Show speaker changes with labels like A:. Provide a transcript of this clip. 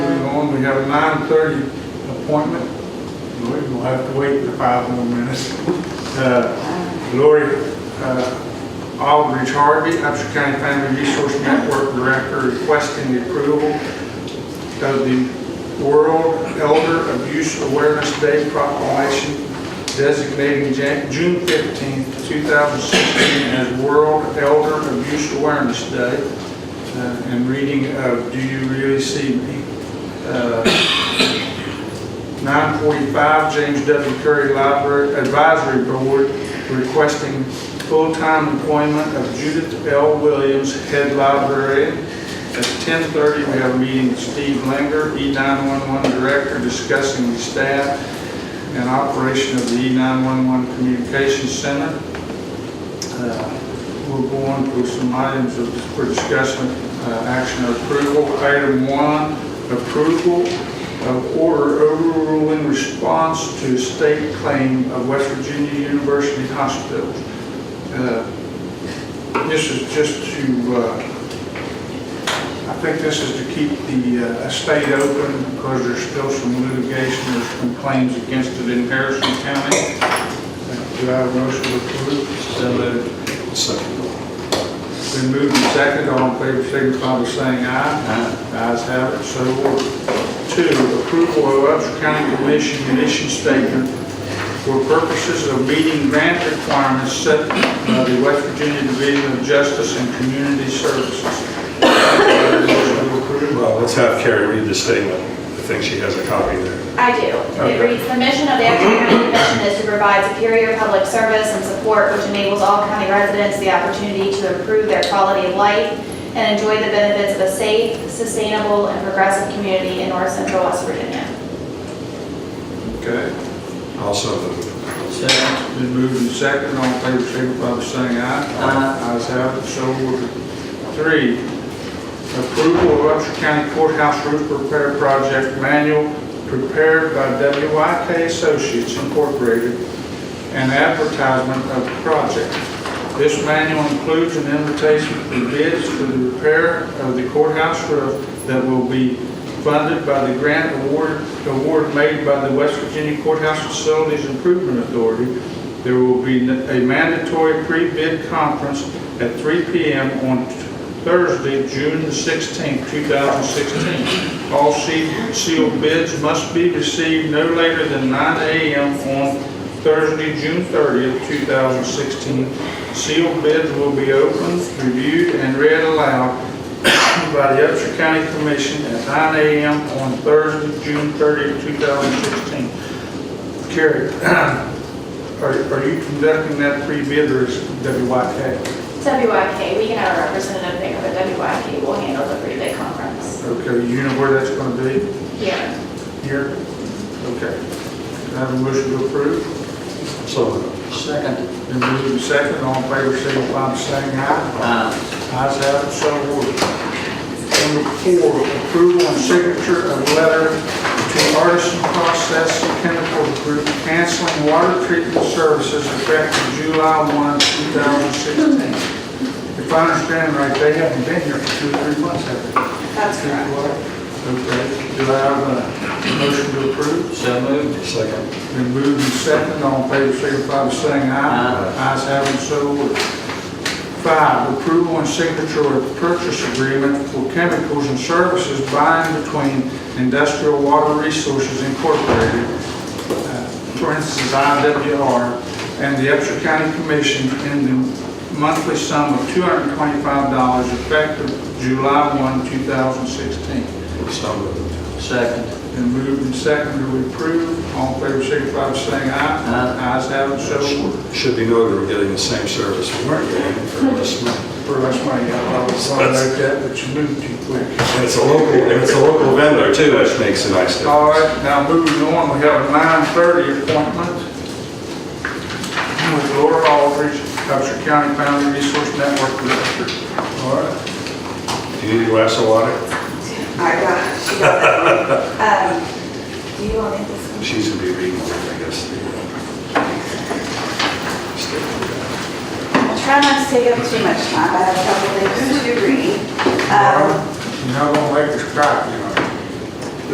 A: we have a nine thirty appointment. Lori, we'll have to wait for five more minutes. Uh, Lori uh, Aldridge Harvey, Upshur County Family Resource Network Director, requesting the approval of the World Elder Abuse Awareness Day proclamation designating Jan- June 15, 2016 as World Elder Abuse Awareness Day uh, and reading of Do You Really See Me? Uh, 945, James W. Curry Library Advisory Board requesting full-time employment of Judith L. Williams, head librarian. At 10:30, we have a meeting with Steve E Linger, E911 Director, discussing the staff and operation of the E E911 Communications Center. Uh, We'll go on to some items of- for discussion, uh, action or approval. Item one, approval of order overruling response to state claim of West Virginia University Hospitals. Uh, This is just to, uh, I think this is to keep the uh, estate open because there's still some litigation, there's some claims against it in Harrison County. Uh, Do I have a motion to approve? So Been moved and seconded, all in favor, signify by saying aye. Aye. Ayes have it, so ordered. Two, approval of Upsher County Commission mission statement for purposes of meeting grant requirements set by the West Virginia Division of Justice and Community Services. Do I have a motion to approve?
B: Well, let's have Carrie read the statement. I think she has a copy there.
C: I do. It reads, "The mission of the Upton County Commission is to provide superior public service and support which enables all county residents the opportunity to improve their quality of life and enjoy the benefits of a safe, sustainable, and progressive community in North Central West Virginia."
A: Okay.
B: Also, the-
D: Second.
A: Been moved and seconded, all in favor, signify by saying aye.
D: Aye.
A: Ayes have it, so ordered. Three, approval of Upshur County Courthouse Roof Repair Project Manual prepared by WYK Associates Incorporated and advertisement of the project. This manual includes an invitation for bids for the repair of the courthouse roof that will be funded by the grant award, award made by the West Virginia Courthouse Facilities Improvement Authority. There will be a mandatory pre-bid conference at 3 PM on Thursday, June the 16th, 2016. All se- sealed bids must be received no later than 9 AM on Thursday, June 30th, 2016. Sealed bids will be opened, reviewed, and read aloud by the Upshur County Commission at 9 AM on Thursday, June 30th, 2016. Carrie, are are you conducting that pre-bid or is WYK?
C: WYK, we can have a representative there, but WYK will handle the three-day conference.
A: Okay, you know where that's going to be?
C: Yeah.
A: Here? Okay. Can I have a motion to approve?
B: so,
D: Second.
A: Been moved and seconded, all in favor, signify by saying aye.
D: Aye.
A: Ayes have it, so ordered. Number four, approval and signature of letter to Artisan Process Chemical Group canceling water treatment services effective July 1, 2016. If I understand right, they haven't been here for two, or three months, have they?
C: That's correct.
A: Okay, do I have a motion to approve?
D: So moved.
B: second.
A: Been moved and seconded, all in favor, signify by saying aye.
D: Aye.
A: Ayes have it, so ordered. Five, approval and signature of purchase agreement for chemicals and services by and between Industrial Water Resources Incorporated, uh, for instance, IWR, and the Upshur County Commission in the monthly sum of $225 effective July 1, 2016.
B: So moved.
D: Second.
A: Been moved and seconded to approve. All in favor, signify by saying aye.
D: Aye.
A: Ayes have it, so ordered.
B: Should be noted, we're getting the same service we weren't getting for last month.
A: For last money, uh, I was sorry about that, but you moved too quick.
B: And it's a local, and it's a local vendor too, which makes it nice to.
A: All right, now moving on, we have a nine thirty appointment with Laura Aldridge, Upshur County Family Resource Network Director. All right,
B: Do you need a glass of water?
E: I got it, she got it. Um, Do you want me to this one?
B: She's gonna be reading, it, I guess. the, uh, statement.
E: I'll try not to take up too much time, I have a couple things to read. Um,
A: you're not gonna make us cry, you know.